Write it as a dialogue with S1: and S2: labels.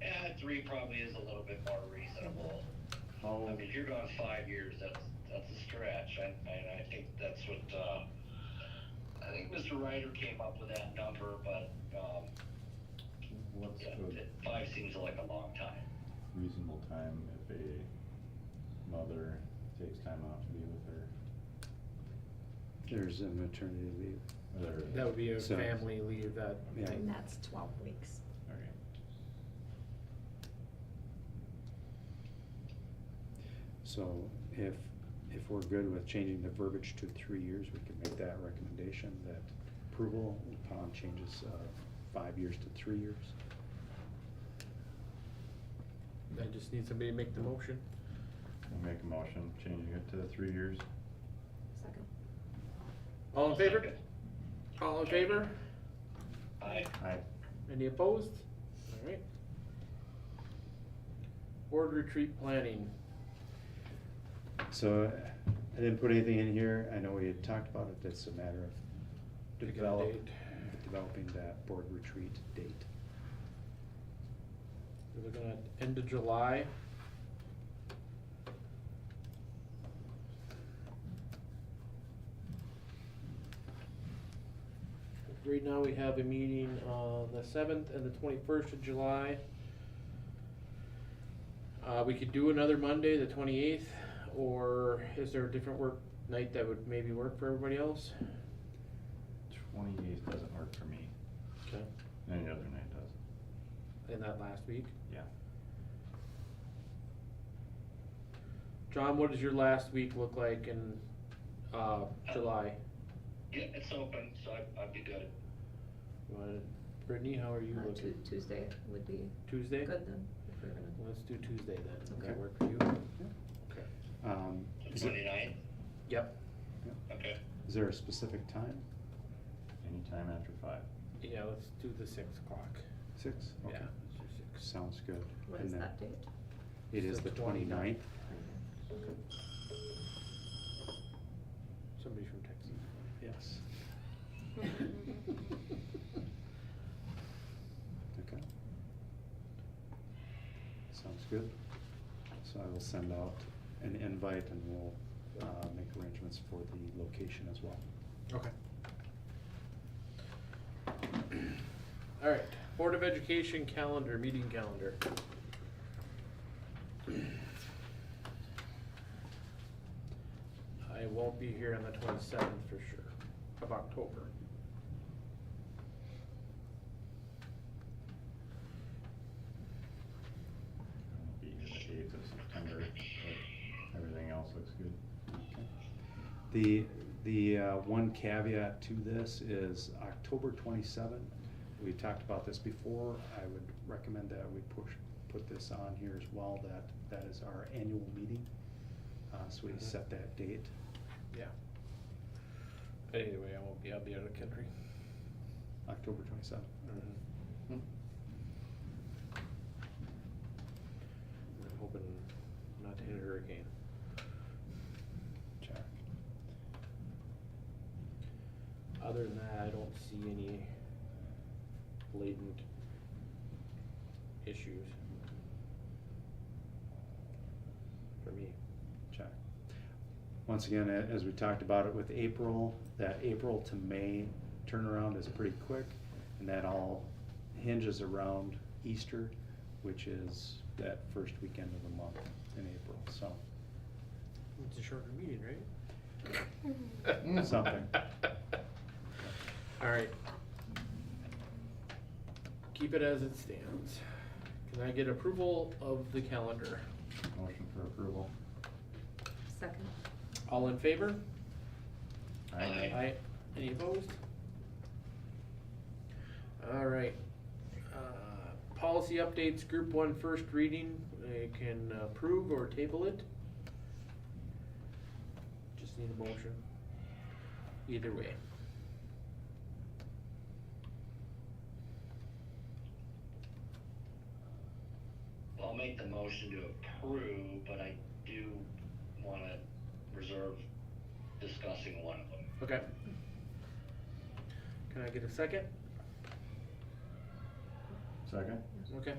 S1: Eh, three probably is a little bit more reasonable. I
S2: Oh.
S3: How,
S1: mean, if you're going five years, that's, that's a stretch, I, I, I think that's what, uh, I think Mr. Ryder came up with that number, but, um,
S3: what's
S1: yeah,
S3: the
S1: th- five seems like a long time.
S3: reasonable time if a mother takes time off to be with her?
S4: There's a maternity leave.
S3: Or,
S2: That would be a
S4: So-
S2: family leave that,
S4: Yeah.
S5: And that's twelve weeks.
S3: okay.
S4: So if, if we're good with changing the verbiage to three years, we can make that recommendation that approval upon changes of five years to three years.
S2: I just need somebody to make the motion.
S3: I'll make a motion, changing it to three years.
S5: Second.
S2: All in favor? All in favor?
S1: I,
S3: I,
S2: Any opposed? All right. Board retreat planning.
S4: So uh, I didn't put anything in here. I know we had talked about it. It's a matter of
S2: Pick a
S4: develop,
S2: date.
S4: developing that board retreat date.
S2: We're looking at end of July. Right now, we have a meeting on the seventh and the twenty-first of July. Uh, we could do another Monday, the twenty-eighth, or is there a different work night that would maybe work for everybody else?
S3: twenty-eighth doesn't work for me,
S2: Okay.
S3: any other night does.
S2: In that last week?
S3: Yeah.
S2: John, what does your last week look like in, uh, July?
S1: yeah, it's open, so I, I'd be good.
S2: What- Brittany, how are you
S5: Uh, Tu-
S2: looking?
S5: Tuesday would be
S2: Tuesday?
S5: good then, if we're gonna,
S2: Let's do Tuesday then. Does that
S4: Okay.
S2: work for you?
S4: Um, is it-
S1: Twenty-nine?
S2: Yep.
S1: Okay.
S4: is there a specific time?
S3: Anytime after five.
S2: Yeah, let's do the six o'clock.
S4: Six? Okay.
S2: Yeah. let's do six.
S4: Sounds good.
S5: what
S4: And
S5: is
S4: then
S5: that date?
S4: It is the
S2: The
S4: twenty-ninth.
S2: 29th. Somebody from Texas.
S4: Yes. Okay. Sounds good. So I will send out an invite and we'll uh, make arrangements for the location as well.
S2: Okay. All right, Board of Education calendar, meeting calendar. I won't be here on the twenty-seventh for sure, of October.
S3: I'll Be here the eighth of September, but everything else looks good.
S4: Okay. The, the uh, one caveat to this is October twenty-seven. We talked about this before. I would recommend that we push, put this on here as well, that, that is our annual meeting. Uh, So we
S2: Mhm.
S4: set that date.
S2: Yeah. Anyway, I won't be, I'll be out of the country.
S4: October twenty-seventh.
S2: I'm hoping not to hit a hurricane.
S4: Check.
S2: Other than that, I don't see any blatant issues. For me.
S4: Check. Once again, a- as we talked about it with April, that April to May turnaround is pretty quick. And that all hinges around Easter, which is that first weekend of the month in April, so.
S2: It's a shorter meeting,
S4: Mm.
S2: right?
S4: Something.
S2: All right. Keep it as it stands. Can I get approval of the calendar?
S3: Motion for approval.
S5: Second.
S2: All in favor?
S1: Aye.
S2: Aye. Any opposed? All right. Uh, Policy updates, group one first reading, they can approve or table it. Just need a motion. Either way.
S1: I'll make the motion to approve, but I do wanna reserve discussing one of them.
S2: Okay. Can I get a second?
S3: Second?
S2: Okay.